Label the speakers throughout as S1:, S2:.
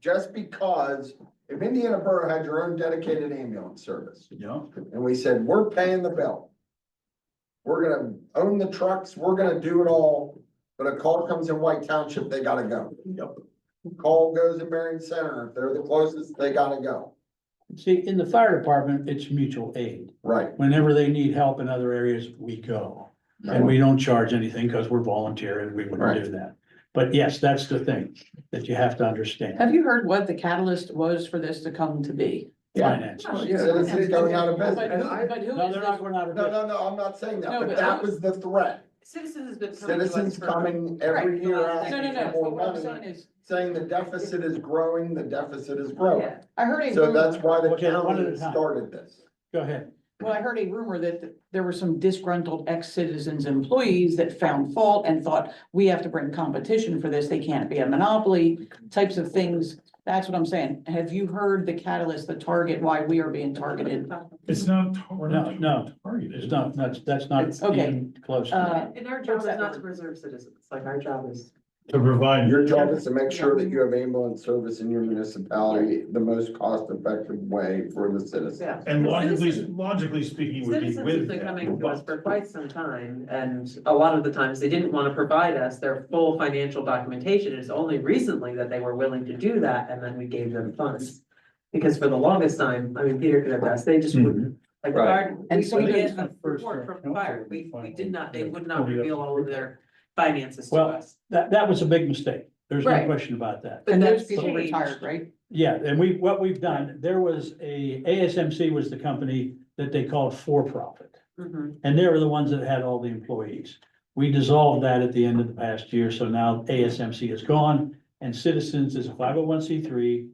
S1: just because if Indiana Borough had your own dedicated ambulance service,
S2: Yeah,
S1: and we said, we're paying the bill. We're gonna own the trucks, we're gonna do it all, but a call comes in White Township, they gotta go.
S2: Yep.
S1: Call goes in Marion Center, if they're the closest, they gotta go.
S3: See, in the fire department, it's mutual aid.
S1: Right.
S3: Whenever they need help in other areas, we go. And we don't charge anything because we're volunteer and we
S1: Right.
S3: wouldn't do that. But yes, that's the thing that you have to understand.
S4: Have you heard what the catalyst was for this to come to be?
S3: Finances.
S4: Oh,
S1: yeah. Citizens going out of
S4: But
S1: business.
S4: who, but who
S3: No,
S4: is
S3: they're not,
S4: this?
S3: we're not.
S1: No, no, no, I'm not saying that,
S4: No,
S1: but
S4: but-
S1: that was the threat.
S5: Citizens has been. coming to us
S1: Citizens
S5: for-
S1: coming every
S5: Right.
S1: year
S4: No,
S1: asking
S4: no, no,
S1: for
S4: but
S1: more
S4: what I'm saying
S1: money,
S4: is,
S1: saying the deficit is growing, the deficit is growing.
S5: Yeah.
S4: I heard a
S1: So that's
S4: rumor,
S1: why the
S3: Okay, one at a
S1: county
S3: time.
S1: started this.
S3: Go ahead.
S4: well, I heard a rumor that th- there were some disgruntled ex-citizens employees that found fault and thought, we have to bring competition for this, they can't be a monopoly, types of things. That's what I'm saying. Have you heard the catalyst, the target, why we are being targeted?
S2: it's not, we're not.
S3: No, no,
S2: targeted.
S3: It's not, that's, that's not
S4: It's- okay.
S3: even close. to
S4: Uh,
S3: that.
S5: And our job is not to preserve citizens, like our job is.
S2: To provide.
S1: Your job is to make sure that you have ambulance service in your municipality the most cost effective way for the citizen.
S5: Yeah.
S2: And logically,
S5: Citizens-
S2: logically speaking, would be
S5: Citizens have
S2: with
S5: been coming
S2: that.
S5: to us for
S2: but-
S5: quite some time, and a lot of the times they didn't want to provide us their full financial documentation. It's only recently that they were willing to do that, and then we gave them funds. Because for the longest time, I mean, Peter could attest, they just
S2: Mm-hmm.
S5: wouldn't, like,
S1: Right.
S5: fire,
S4: And
S5: we
S4: so
S5: would
S4: they-
S5: get a report from fire, we, we did not, they would not reveal all of their finances to
S3: Well,
S5: us.
S3: That, that was a big mistake. There's no
S5: Right.
S3: question about that.
S4: And those
S5: that's
S4: people
S5: changed.
S4: retired, right?
S3: Yeah, and we, what we've done, there was a, ASMC was the company that they called for-profit.
S5: Mhm.
S3: And they were the ones that had all the employees. We dissolved that at the end of the past year, so now ASMC is gone and Citizens is a five oh one C three.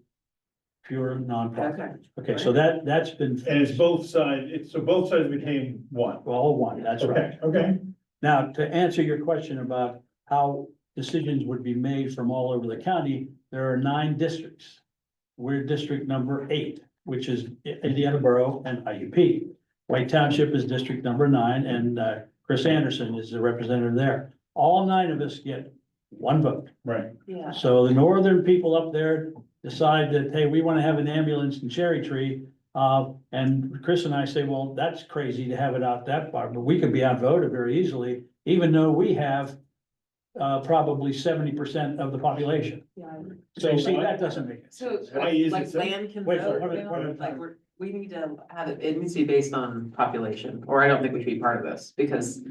S3: Pure nonprofit.
S5: Okay.
S3: Okay, so that, that's been
S2: And it's both sides, it's, so both sides became one.
S3: all one, that's right.
S2: Okay, okay.
S3: Now, to answer your question about how decisions would be made from all over the county, there are nine districts. We're district number eight, which is I- Indiana Borough and IUP. White Township is district number nine, and uh, Chris Anderson is the representative there. All nine of us get one vote.
S2: Right.
S5: Yeah.
S3: So the northern people up there decide that, hey, we want to have an ambulance in Cherry Tree. Uh, and Chris and I say, well, that's crazy to have it out that far, but we could be outvoted very easily, even though we have uh, probably seventy percent of the population.
S5: Yeah.
S3: So you see, that doesn't make it.
S5: So,
S2: Why is it
S5: like
S2: so?
S5: land can
S3: Wait,
S5: vote,
S3: wait,
S5: you know,
S3: wait, wait.
S5: like, we're, we need to have it, it needs to be based on population, or I don't think we should be part of this, because.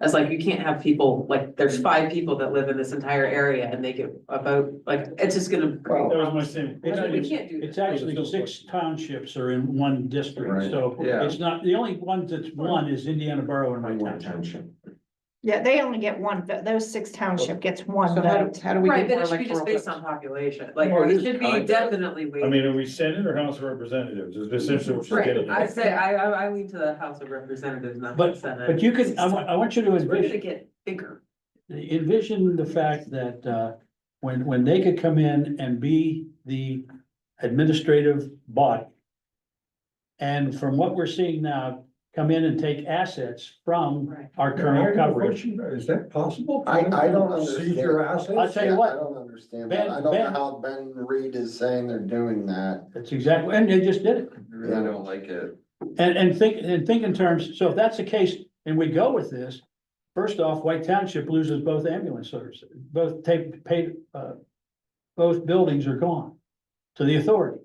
S5: That's like, you can't have people, like, there's five people that live in this entire area and they get a vote, like, it's just gonna.
S1: Well,
S2: That was my same.
S3: It's-
S5: We can't do
S3: It's
S5: this.
S3: actually six townships are in one district,
S1: Right,
S3: so
S1: yeah.
S3: it's not, the only one that's one is Indiana Borough and White Township.
S6: Yeah, they only get one, vote. those six township gets one
S4: So how
S6: vote.
S4: do, how do we
S5: Right,
S4: get more
S5: but it should be just
S4: electoral
S5: based
S4: votes?
S5: on population, like,
S2: Well, it
S5: it
S2: is
S5: should
S2: kind
S5: be
S2: of.
S5: definitely
S2: I
S5: weighted.
S2: mean, are we Senate or House of Representatives? Is essentially what you're
S5: Right,
S2: getting
S5: I
S2: at.
S5: say, I, I, I lean to the House of Representatives, not the
S3: But-
S5: Senate.
S3: But you can, I want, I want you to
S5: We're
S3: envision.
S5: gonna get bigger.
S3: envision the fact that uh, when, when they could come in and be the administrative body. And from what we're seeing now, come in and take assets from
S5: Right.
S3: our current coverage.
S7: Is that possible?
S1: I, I don't
S7: Seize
S1: understand.
S7: your
S3: I
S7: assets?
S3: tell you what.
S1: I don't understand
S3: Ben-
S1: that. I don't know
S3: Ben-
S1: how Ben Reed is saying they're doing that.
S3: That's exactly, and they just did it.
S1: I don't like it.
S3: And, and think, and think in terms, so if that's the case, and we go with this, first off, White Township loses both ambulance services, both take, paid, uh, both buildings are gone to the authority.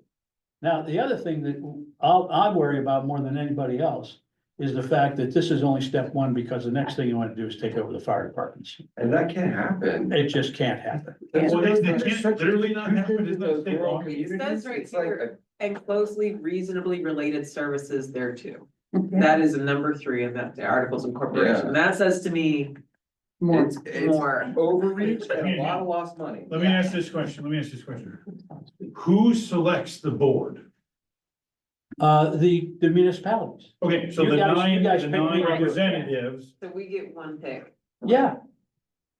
S3: Now, the other thing that I'll, I worry about more than anybody else is the fact that this is only step one, because the next thing you want to do is take over the fire departments.
S7: And that can't happen.
S3: It just can't happen.
S2: Well, they, they can't literally not happen. It's not state law.
S5: It says right
S7: It's like
S5: here. And closely reasonably related services thereto. That is number three in that, the articles of
S1: Yeah.
S5: corporation. That says to me
S1: a-
S4: More,
S1: It's, it's
S5: more.
S1: overreach and a lot of lost money.
S2: Let me ask this question, let me ask this question. Who selects the board?
S3: Uh, the, the municipalities,
S2: Okay, so
S3: You
S2: the
S3: guys- you
S2: nine,
S3: guys
S2: the
S3: pick me.
S2: nine representatives,
S5: So we get one pick.
S3: yeah,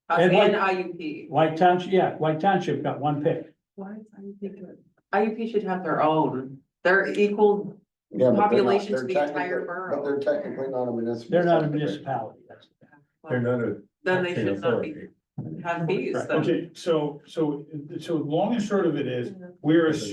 S5: Us
S3: And
S5: And
S3: what-
S5: IUP.
S3: White Township, yeah, White Township got one pick.
S5: Why is IUP good? IUP should have their own. They're
S1: Yeah,
S5: equal.
S1: but they're not-
S5: Population to
S1: they're
S5: the entire
S1: technically- But
S5: borough.
S1: they're technically not a municipal.
S3: They're not a
S1: subdivision.
S3: municipality, that's the thing.
S7: They're not a.
S5: Then they should not be. have fees.
S3: Right,
S5: then.
S2: Okay, so, so, so long and short of it is, we're assuming